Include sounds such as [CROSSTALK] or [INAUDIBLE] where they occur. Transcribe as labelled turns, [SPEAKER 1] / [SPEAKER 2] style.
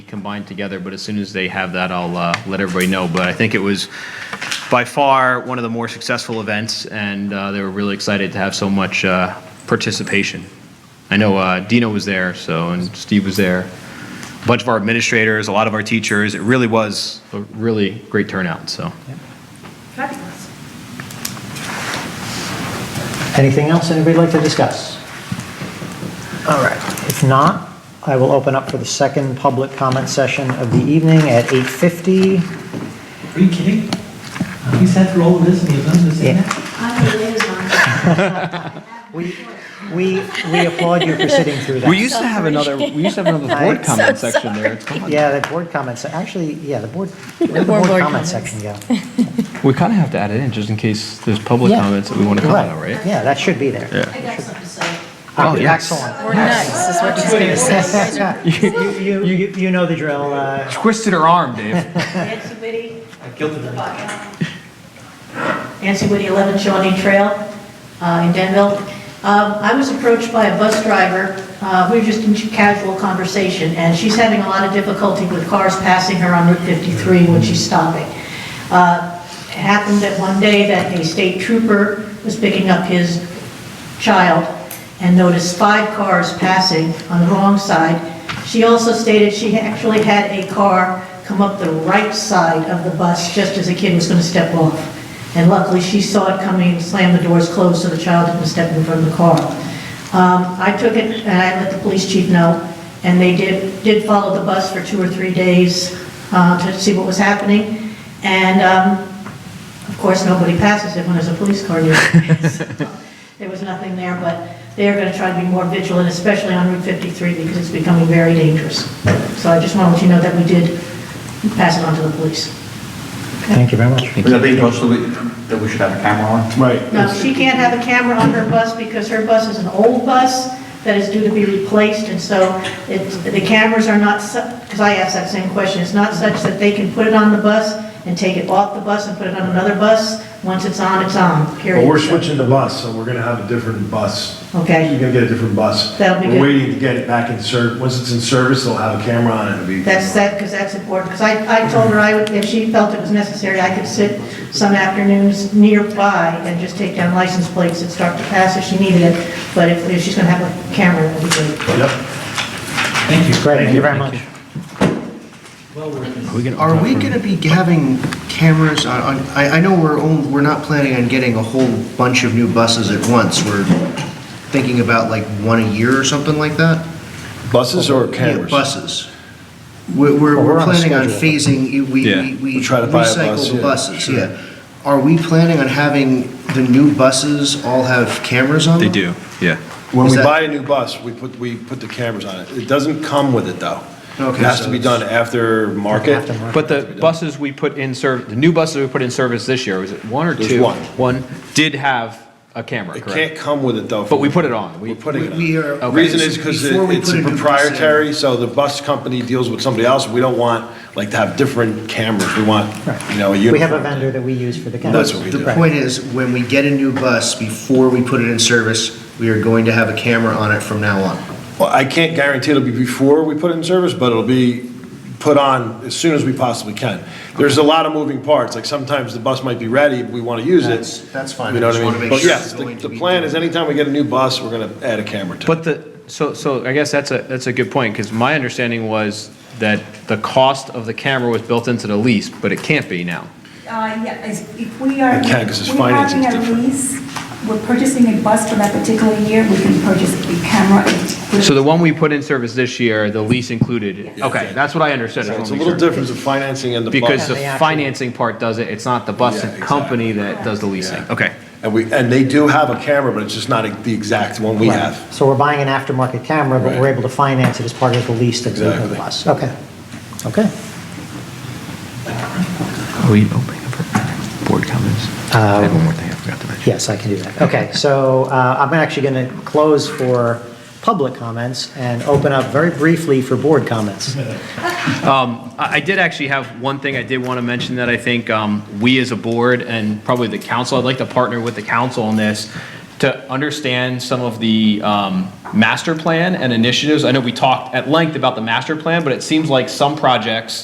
[SPEAKER 1] combined together, but as soon as they have that, I'll uh, let everybody know. But I think it was by far one of the more successful events, and uh, they were really excited to have so much uh, participation. I know uh, Dino was there, so, and Steve was there, a bunch of our administrators, a lot of our teachers. It really was a really great turnout, so.
[SPEAKER 2] Fabulous.
[SPEAKER 3] Anything else anybody would like to discuss? All right, if not, I will open up for the second public comment session of the evening at 8:50.
[SPEAKER 4] Are you kidding? You sat through all of this and you've done this in
[SPEAKER 3] Yeah.
[SPEAKER 4] there?
[SPEAKER 2] I'm a liaison.
[SPEAKER 3] We, we we applaud you for sitting through that.
[SPEAKER 5] We used to have another, we used to have another [LAUGHS] board comment section there. It's gone.
[SPEAKER 3] Yeah, the board comments, actually, yeah, the board, where did the
[SPEAKER 5] More
[SPEAKER 3] board
[SPEAKER 5] board
[SPEAKER 3] comment
[SPEAKER 5] comments.
[SPEAKER 3] section go?
[SPEAKER 5] We kind of have to add it in just in case there's public
[SPEAKER 3] Yeah.
[SPEAKER 5] comments that we want to comment on, right?
[SPEAKER 3] Yeah, that should be there.
[SPEAKER 2] I got something to say.
[SPEAKER 3] Ah,
[SPEAKER 5] Oh, yes.
[SPEAKER 3] Excellent.
[SPEAKER 6] We're nice, is what she's gonna say.
[SPEAKER 3] You, [LAUGHS] you, you you know the drill. uh,
[SPEAKER 5] Twisted her arm, Dave.
[SPEAKER 2] Nancy Whitty,
[SPEAKER 4] I guilted her.
[SPEAKER 2] Nancy Whitty, 11 Shawnee Trail uh, in Denville. Um, I was approached by a bus driver, uh, we were just in casual conversation, and she's having a lot of difficulty with cars passing her on Route 53 when she's stopping. Uh, It happened that one day that a state trooper was picking up his child and noticed five cars passing on the wrong side. She also stated she actually had a car come up the right side of the bus just as the kid was going to step off. And luckily, she saw it coming, and slammed the doors closed so the child didn't step in front of the car. Um, I took it and I let the police chief know, and they did, did follow the bus for two or three days uh, to see what was happening. And um, of course, nobody passes it when there's a police car near. [LAUGHS] There was nothing there, but they are going to try to be more vigilant, especially on Route 53, because it's becoming very dangerous. So I just want to let you know that we did pass it on to the police.
[SPEAKER 3] Thank you very much.
[SPEAKER 7] Would that be also that we should have a camera on?
[SPEAKER 8] Right.
[SPEAKER 2] Now, she can't have a camera on her bus because her bus is an old bus that is due to be replaced, and so it, the cameras are not, because I asked that same question, it's not such that they can put it on the bus and take it off the bus and put it on another bus. Once it's on, it's on, period.
[SPEAKER 8] But we're switching the bus, so we're gonna have a different bus.
[SPEAKER 2] Okay.
[SPEAKER 8] You're gonna get a different bus.
[SPEAKER 2] That'll be good.
[SPEAKER 8] We're waiting to get it back in service. Once it's in service, they'll have a camera on it. It'll be.
[SPEAKER 2] That's that, because that's important, because I, I told her I would, if she felt it was necessary, I could sit some afternoons nearby and just take down license plates and start to pass if she needed it, but if, if she's gonna have a camera, it would be great.
[SPEAKER 8] Yep.
[SPEAKER 4] Thank you.
[SPEAKER 3] Great, thank you very much.
[SPEAKER 4] Well worth it.
[SPEAKER 9] Are we going to be having cameras on, on- I, I know we're, on- we're not planning on getting a whole bunch of new buses at once. We're thinking about like one a year or something like that?
[SPEAKER 8] Buses or
[SPEAKER 9] Yeah,
[SPEAKER 8] cameras?
[SPEAKER 9] Buses. We're, we're
[SPEAKER 8] Well, we're
[SPEAKER 9] we're
[SPEAKER 8] on a
[SPEAKER 9] planning on
[SPEAKER 8] schedule.
[SPEAKER 9] phasing, we,
[SPEAKER 5] Yeah.
[SPEAKER 9] we- we
[SPEAKER 8] We try to buy a bus,
[SPEAKER 9] recycle the
[SPEAKER 8] yeah,
[SPEAKER 9] buses,
[SPEAKER 8] sure.
[SPEAKER 9] yeah. Are we planning on having the new buses all have cameras on them?
[SPEAKER 5] They do, yeah.
[SPEAKER 8] When
[SPEAKER 9] Is
[SPEAKER 8] we
[SPEAKER 9] that-
[SPEAKER 8] buy a new bus, we put, we put the cameras on it. It doesn't come with it, though. It
[SPEAKER 9] Okay,
[SPEAKER 8] has to
[SPEAKER 9] so
[SPEAKER 8] be
[SPEAKER 9] it's-
[SPEAKER 8] done after market.
[SPEAKER 5] But the buses we put in serv, the new buses we put in service this year, was it one or
[SPEAKER 8] There's
[SPEAKER 5] two?
[SPEAKER 8] one.
[SPEAKER 5] One did have a camera,
[SPEAKER 8] It can't
[SPEAKER 5] correct?
[SPEAKER 8] come with it, though.
[SPEAKER 5] But we put it on. We-
[SPEAKER 8] We're putting it on.
[SPEAKER 9] We are.
[SPEAKER 5] Okay.
[SPEAKER 8] Reason is because
[SPEAKER 9] Before we
[SPEAKER 8] it's
[SPEAKER 9] put a new bus in.
[SPEAKER 8] proprietary, so the bus company deals with somebody else. We don't want, like, to have different cameras. We want, you know, a
[SPEAKER 3] We have a
[SPEAKER 8] uniform.
[SPEAKER 3] vendor that we use for the cameras.
[SPEAKER 8] That's what we do.
[SPEAKER 9] The point is, when we get a new bus, before we put it in service, we are going to have a camera on it from now on.
[SPEAKER 8] Well, I can't guarantee it'll be before we put it in service, but it'll be put on as soon as we possibly can. There's a lot of moving parts, like sometimes the bus might be ready, we want to use
[SPEAKER 9] That's-
[SPEAKER 8] it.
[SPEAKER 9] that's fine.
[SPEAKER 8] You
[SPEAKER 9] I
[SPEAKER 8] know what
[SPEAKER 9] just
[SPEAKER 8] I
[SPEAKER 9] wanna
[SPEAKER 8] mean?
[SPEAKER 9] make
[SPEAKER 8] But
[SPEAKER 9] sure
[SPEAKER 8] yes,
[SPEAKER 9] it's
[SPEAKER 8] the
[SPEAKER 9] going to
[SPEAKER 8] the
[SPEAKER 9] be
[SPEAKER 8] plan is
[SPEAKER 9] doing-
[SPEAKER 8] anytime we get a new bus, we're going to add a camera to it.
[SPEAKER 5] But the, so, so I guess that's a, that's a good point, because my understanding was that the cost of the camera was built into the lease, but it can't be now.
[SPEAKER 10] Uh, Yeah, is- if we are,
[SPEAKER 8] We can't 'cause it's
[SPEAKER 10] we're having
[SPEAKER 8] financing's
[SPEAKER 10] a
[SPEAKER 8] different.
[SPEAKER 10] lease, we're purchasing a bus for that particular year, we can purchase the camera. and-
[SPEAKER 5] So the one we put in service this year, the lease included, okay, that's what I understood. I
[SPEAKER 8] So
[SPEAKER 5] just
[SPEAKER 8] It's a
[SPEAKER 5] wanna
[SPEAKER 8] little
[SPEAKER 5] make sure.
[SPEAKER 8] difference of financing and the
[SPEAKER 5] Because the
[SPEAKER 8] bus.
[SPEAKER 3] they actually-
[SPEAKER 5] financing part does it, it's not the bus
[SPEAKER 8] Yeah, exactly.
[SPEAKER 5] company that does the leasing. Okay.
[SPEAKER 8] And we, and they do have a camera, but it's just not e, the exact one we have.
[SPEAKER 3] So we're buying an aftermarket camera, but we're
[SPEAKER 8] Right.
[SPEAKER 3] able to finance it as part of the lease that we have
[SPEAKER 8] Exactly.
[SPEAKER 3] with us. Okay, okay.
[SPEAKER 5] Are we opening up for board comments? I have one more thing I forgot to mention.
[SPEAKER 3] Yes, I can do that. Okay, so uh, I'm actually going to close for public comments and open up very briefly for board comments.
[SPEAKER 5] I I did actually have one thing I did want to mention that I think um, we as a board and probably the council, I'd like to partner with the council on this to understand some of the um, master plan and initiatives. I know we talked at length about the master plan, but it seems like some projects